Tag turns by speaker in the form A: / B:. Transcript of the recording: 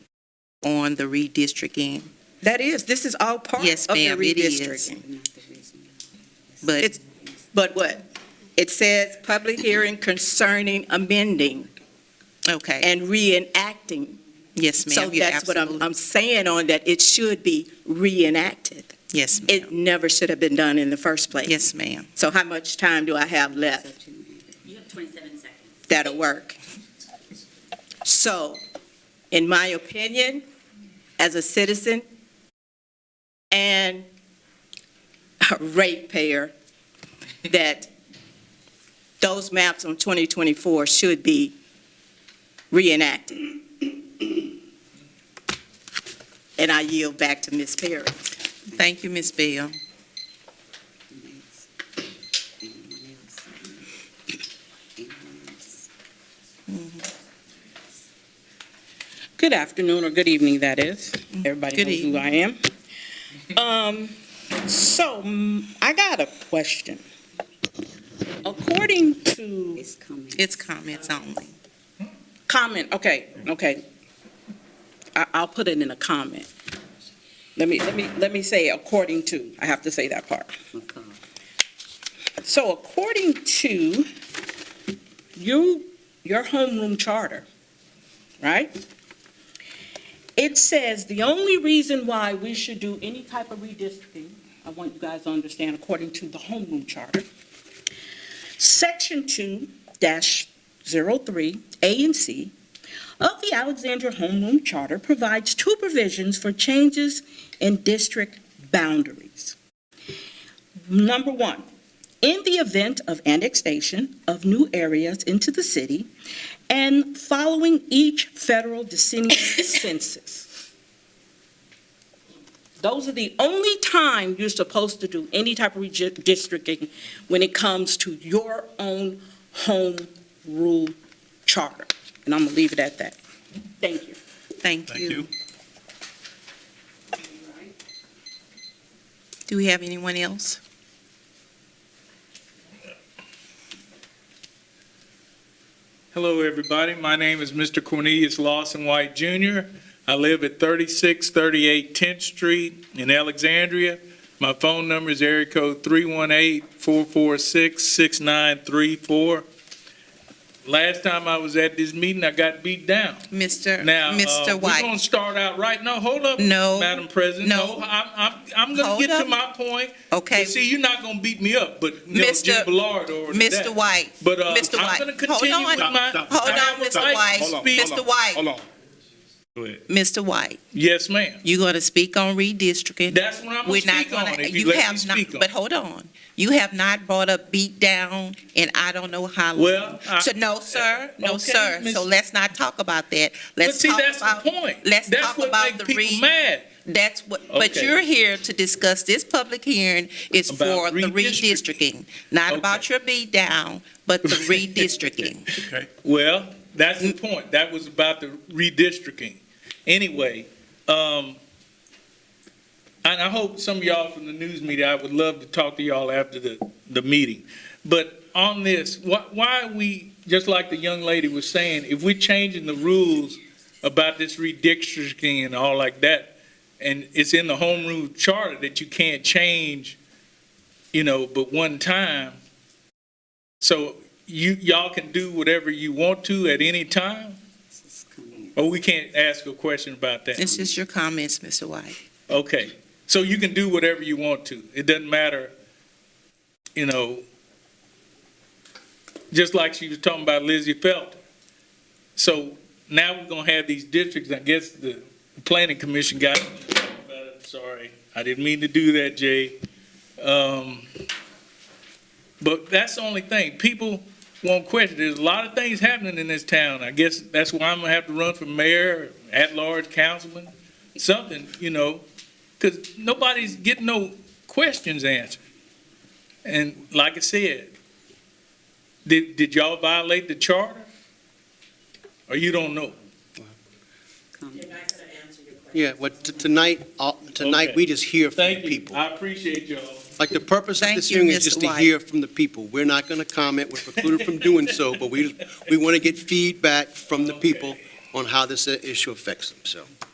A: on the redistricting,
B: That is, this is all part
A: Yes,
B: of the
A: ma'am, it is.
B: redistricting.
A: but
B: It's- But what? It says public hearing concerning amending
A: okay,
B: and reenacting.
A: yes,
B: So
A: ma'am. you
B: that's what I'm,
A: absolutely-
B: I'm saying on that, it should be reenacted.
A: Yes, ma'am.
B: It never should have been done in the first place.
A: Yes, ma'am.
B: So how much time do I have left?
C: You have 27 seconds.
B: that'll work. So, in my opinion, as a citizen and a ratepayer, that those maps on 2024 should be reenacted. And I yield back to Ms. Perry.
A: Thank you, Ms. Bell.
D: Good afternoon, or good evening, that is.
A: Mm-hmm.
D: Everybody
A: Good
D: knows who I am. Um, So mm, I got a question. According to
C: It's coming.
A: It's comments only.
D: comment, okay, okay. I- I'll put it in a comment. Let me, let me, let me say according to, I have to say that part.
C: McCall.
D: So according to you, your homeroom charter, right? It says the only reason why we should do any type of redistricting, I want you guys to understand, according to the homeroom charter, section two dash zero three, A and C, of the Alexandria Homeroom Charter provides two provisions for changes in district boundaries. Number one, in the event of annexation of new areas into the city and following each federal decennial census. Those are the only time you're supposed to do any type of redistricting when it comes to your own home rule charter. And I'm gonna leave it at that. Thank you.
A: Thank you. Do we have anyone else?
E: Hello, everybody. My name is Mr. Cornelius Lawson White Jr. I live at 3638 10th Street in Alexandria. My phone number is area code 318-446-6934. Last time I was at this meeting, I got beat down.
A: Mr.
E: Now, uh,
A: Mr.
E: We're
A: White,
E: going to start out right now. Hold up,
A: No.
E: Madam President.
A: No.
E: I'm, I'm, I'm going
A: Hold
E: to get
A: up.
E: to my point.
A: okay,
E: But see, you're not going to beat me up, but you know,
A: Mr.
E: Jim Ballard or that.
A: Mr. White,
E: But uh,
A: Mr.
E: I'm
A: White,
E: going to
A: hold on.
E: continue with my.
A: Hold
E: I
A: on,
E: would
A: Mr.
E: like to
A: White.
E: speak-
A: Mr. White.
F: Hold on.
A: Mr. White,
E: Yes, ma'am.
A: you're going to speak on redistricting.
E: That's what I'm
A: We're
E: going to
A: not
E: speak on.
A: going to,
E: If you
A: you
E: let me
A: have not,
E: speak on.
A: but hold on. You have not brought up beat down and I don't know how long.
E: Well, I-
A: So, no, sir, no,
E: Uh, Okay,
A: sir.
E: Miss-
A: So let's not talk about that.
E: But
A: Let's
E: see,
A: talk
E: that's
A: about.
E: the point.
A: Let's
E: That's
A: talk
E: what
A: about the
E: make people
A: re-
E: mad.
A: That's what, but
E: Okay.
A: you're here to discuss, this public hearing is for
E: About
A: the
E: redistricting.
A: redistricting, not
E: Okay.
A: about your beat down, but the redistricting.
E: Okay. Well, that's the point. That was about the redistricting. Anyway, um, and I hope some of y'all from the news media, I would love to talk to y'all after the, the meeting. But on this, why, why are we, just like the young lady was saying, if we're changing the rules about this redistricting and all like that, and it's in the home rule charter that you can't change, you know, but one time. So you, y'all can do whatever you want to at any time,
C: It's coming.
E: or we can't ask a question about that?
A: It's just your comments, Mr. White.
E: Okay, so you can do whatever you want to. It doesn't matter, you know, just like she was talking about Lizzie Felton. So now we're gonna have these districts, I guess the planning commission got, sorry, I didn't mean to do that, Jay. Um, But that's the only thing, people won't question, there's a lot of things happening in this town. I guess that's why I'm gonna have to run for mayor, at-large councilman, something, you know, because nobody's getting no questions answered. And like I said, did, did y'all violate the charter? Or you don't know?
F: Yeah, well, t- tonight, uh, tonight,
E: Okay.
F: we just hear from
E: Thank
F: the
E: you,
F: people.
E: I appreciate y'all.
F: Like, the purpose of
A: Thank
F: this
A: you,
F: hearing is
A: Mr.
F: just to
A: White.
F: hear from the people. We're not going to comment, we're precluded from doing so, but we, we want to get feedback from the people on how this uh, issue affects them, so.